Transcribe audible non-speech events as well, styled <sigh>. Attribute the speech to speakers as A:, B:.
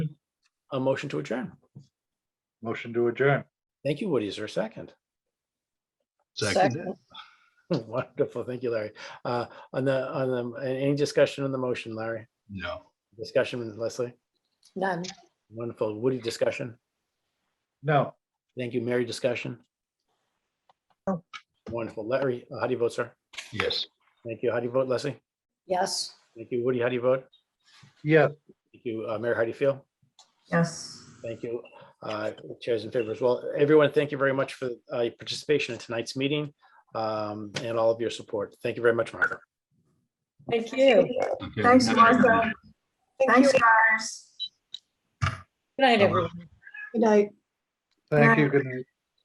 A: a motion to adjourn.
B: Motion to adjourn.
A: Thank you, Woody. Is there a second? <laughs>
C: Second.
A: Wonderful. Thank you, Larry. Uh, on the, on the, a- any discussion on the motion, Larry?
C: No.
A: Discussion with Leslie?
D: None.
A: Wonderful. Woody, discussion?
B: No,
A: Thank you, Mary, discussion?
D: No.
A: Wonderful. Larry, how do you vote, sir?
C: Yes.
A: Thank you. How do you vote, Leslie?
D: Yes.
A: Thank you, Woody. How do you vote?
B: yes.
A: Thank you, uh, Mary, how do you feel?
D: Yes.
A: Thank you. Uh, Chairs in favor as well. Everyone, thank you very much for uh, your participation in tonight's meeting um, and all of your support. Thank you very much, Margaret.
D: Thank you.
C: Okay.
E: Thanks,
C: Good night,
E: Martha.
C: everybody.
E: Thanks, guys.
D: Good night,
C: Bye-bye.
D: everyone.
E: Good night.
B: Thank you. Good night.